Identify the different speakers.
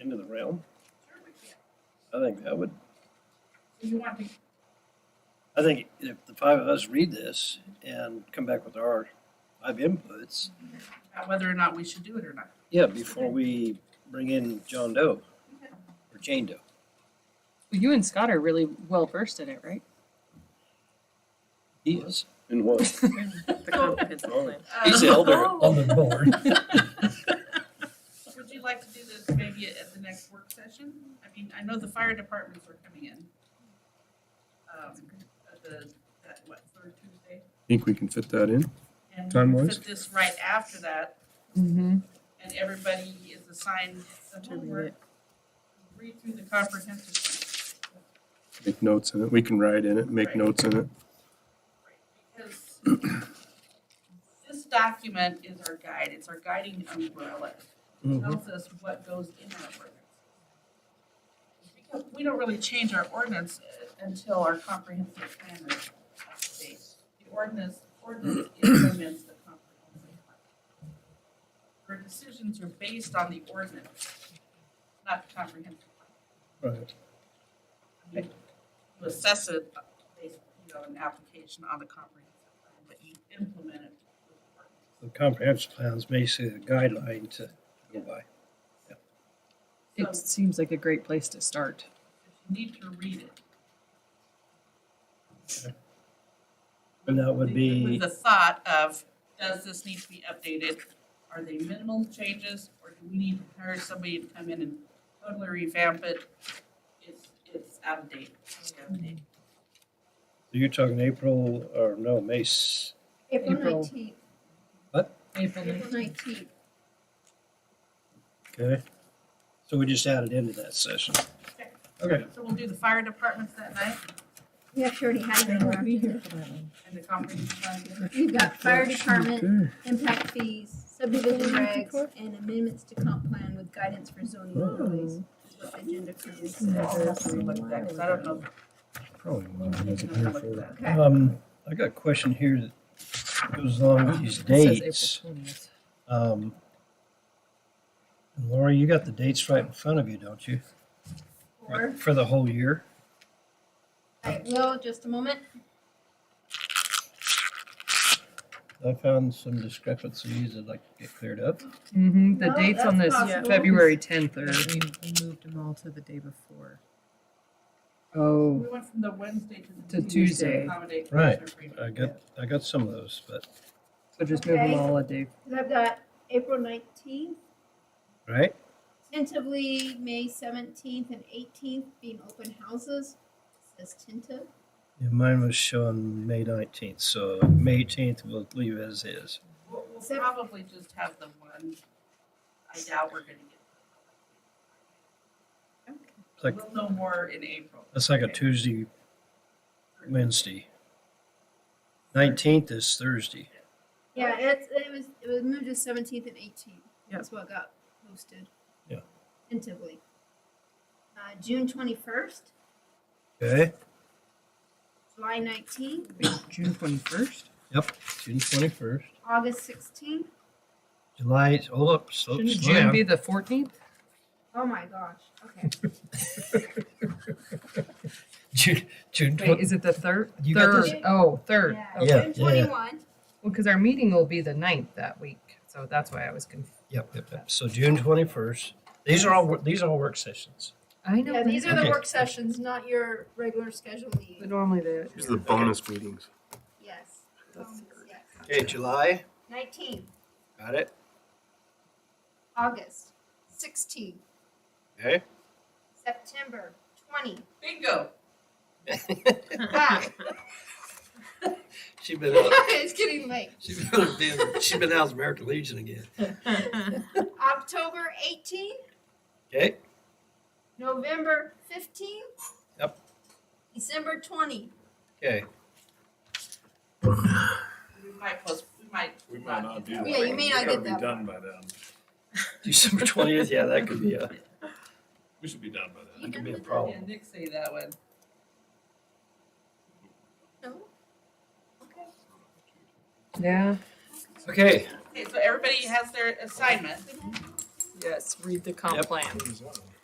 Speaker 1: realm. I think that would,
Speaker 2: You want to,
Speaker 1: I think if the five of us read this and come back with our five inputs,
Speaker 2: about whether or not we should do it or not.
Speaker 1: yeah, before we bring in John Doe or Jane Doe.
Speaker 3: Well, you and Scott are really well versed in it, right?
Speaker 1: He is. In what?
Speaker 4: The
Speaker 5: Oh.
Speaker 4: comprehensive
Speaker 1: Oh.
Speaker 4: plan.
Speaker 1: He's the
Speaker 2: Uh,
Speaker 1: elder on the board.
Speaker 2: oh, Would you like to do this maybe at the next work session? I mean, I know the fire departments are coming in. Um, at the, that, what, third Tuesday?
Speaker 6: Think we can fit that in?
Speaker 2: And
Speaker 6: Time-wise?
Speaker 2: Put this right after that,
Speaker 3: Mm-hmm.
Speaker 2: and everybody is assigned the
Speaker 3: read
Speaker 2: homework. Read through the comprehensive plan.
Speaker 6: Make notes in it. We can write in it, make
Speaker 2: Right.
Speaker 6: notes in it.
Speaker 2: Because this document is our guide, it's our guiding umbrella. It tells us what goes in our ordinance. Because we don't really change our ordinance uh, until our comprehensive plan is up to date. The ordinance, ordinance implements the comprehensive plan. Our decisions are based on the ordinance, not the comprehensive
Speaker 6: Right.
Speaker 2: plan. You assess it based, you know, an application on the comprehensive plan, but you implement it. with the ordinance.
Speaker 1: The comprehensive plan is basically a guideline to go by.
Speaker 3: It seems like a great place to start.
Speaker 2: You need to read it.
Speaker 1: And that would
Speaker 2: With
Speaker 1: be,
Speaker 2: the thought of, does this need to be updated? Are they minimal changes, or do we need to hire somebody to come in and totally revamp it? It's, it's out of date, it's out of date.
Speaker 1: you're talking April or no, May, s-
Speaker 5: April
Speaker 3: April.
Speaker 5: nineteenth,
Speaker 3: April
Speaker 5: April nineteenth.
Speaker 1: okay? So we just added into that session. Okay.
Speaker 2: So we'll do the fire departments that night
Speaker 5: We actually already had that one.
Speaker 2: and the comprehensive plan.
Speaker 5: You've got fire department,
Speaker 6: Okay.
Speaker 5: impact fees, subdivision regs, and amendments to comp plan with guidance for zoning overlays. is what the agenda currently
Speaker 2: I'll have
Speaker 5: says.
Speaker 2: to look at that, 'cause I don't know.
Speaker 6: Probably one of those
Speaker 2: I'm
Speaker 6: up
Speaker 2: gonna
Speaker 6: here
Speaker 2: look at
Speaker 6: for-
Speaker 2: that.
Speaker 5: Okay,
Speaker 1: Um, I got a question here that goes along with these dates. Um, and Laura, you got the dates right in front of you, don't you?
Speaker 5: four,
Speaker 1: For the whole year?
Speaker 5: I will, just a moment.
Speaker 1: I found some discrepancies I'd like to get cleared up.
Speaker 3: Mm-hmm. The
Speaker 5: No,
Speaker 3: dates
Speaker 5: Oh, that's
Speaker 3: on this
Speaker 5: possible.
Speaker 3: February 10th
Speaker 4: We
Speaker 3: are.
Speaker 4: we moved them all to the day before.
Speaker 3: Oh.
Speaker 2: We went from the Wednesday to
Speaker 3: To
Speaker 2: the
Speaker 3: Tuesday.
Speaker 2: Tuesday. to accommodate
Speaker 1: Right.
Speaker 2: commissioner freedom.
Speaker 1: I got, I got some of those, but,
Speaker 3: So just move them
Speaker 5: Okay.
Speaker 3: all a day.
Speaker 5: Cause I've got April nineteenth,
Speaker 1: right?
Speaker 5: tentatively May seventeenth and eighteenth being open houses. It Says tentative.
Speaker 1: Yeah, mine was showing May nineteenth, so May eighteenth we'll leave as is.
Speaker 2: We'll, we'll probably just have the one, I doubt we're gonna get.
Speaker 1: Like-
Speaker 2: We'll know more in April.
Speaker 1: That's like a
Speaker 2: Okay.
Speaker 1: Tuesday, Wednesday. Nineteenth is Thursday.
Speaker 5: Yeah, it's, it was, it was moved to seventeenth and eighteenth.
Speaker 4: Yep.
Speaker 5: That's what got posted.
Speaker 1: Yeah.
Speaker 5: Tentatively. Uh, June twenty-first,
Speaker 1: Okay,
Speaker 5: July nineteenth,
Speaker 3: June 21st?
Speaker 1: June twenty-first,
Speaker 5: August sixteenth.
Speaker 1: July, oh, hold up, slow,
Speaker 3: Shouldn't
Speaker 1: slow
Speaker 3: June
Speaker 1: down.
Speaker 3: be the 14th?
Speaker 5: Oh my gosh, okay.
Speaker 1: June, June
Speaker 3: Wait,
Speaker 1: twenty,
Speaker 3: is it the third?
Speaker 1: You got
Speaker 3: third.
Speaker 5: this?
Speaker 3: Oh, third.
Speaker 5: Yeah,
Speaker 1: Yeah,
Speaker 3: Okay.
Speaker 5: June
Speaker 1: yeah, yeah.
Speaker 5: twenty-one,
Speaker 3: Well, because our meeting will be the 9th that week. So that's why I was confused.
Speaker 1: yep, yep, yep, so June twenty-first. These are all, wor- these are all work sessions.
Speaker 3: I know.
Speaker 5: yeah, these are the
Speaker 1: Okay.
Speaker 5: work sessions, not your regular scheduled
Speaker 3: but
Speaker 5: meeting,
Speaker 3: normally the.
Speaker 6: These are the bonus meetings.
Speaker 5: yes. Um, Yes.
Speaker 1: Okay, July,
Speaker 5: Nineteenth,
Speaker 1: got it,
Speaker 5: August sixteen,
Speaker 1: okay?
Speaker 5: September twenty,
Speaker 2: Bingo.
Speaker 5: wow,
Speaker 1: She's been, out-
Speaker 5: it's getting late.
Speaker 1: she's been, she's been out of American Legion again,
Speaker 5: October eighteenth,
Speaker 1: okay?
Speaker 5: November fifteenth?
Speaker 1: Yep.
Speaker 5: December twenty.
Speaker 1: Okay,
Speaker 2: We might post, we might.
Speaker 7: We might not do that.
Speaker 5: Yeah, you may not
Speaker 7: We gotta
Speaker 5: get that
Speaker 7: be done by then.
Speaker 1: December twentieth, yeah, that could be uh, a,
Speaker 7: We should be done by then.
Speaker 1: that could be a
Speaker 2: Yeah,
Speaker 1: problem.
Speaker 2: Nick say that one.
Speaker 5: No? Okay.
Speaker 3: Yeah.
Speaker 1: Okay,
Speaker 2: Okay, so everybody has their assignment.
Speaker 3: Yes. Read the comp
Speaker 1: Yep.
Speaker 3: plan.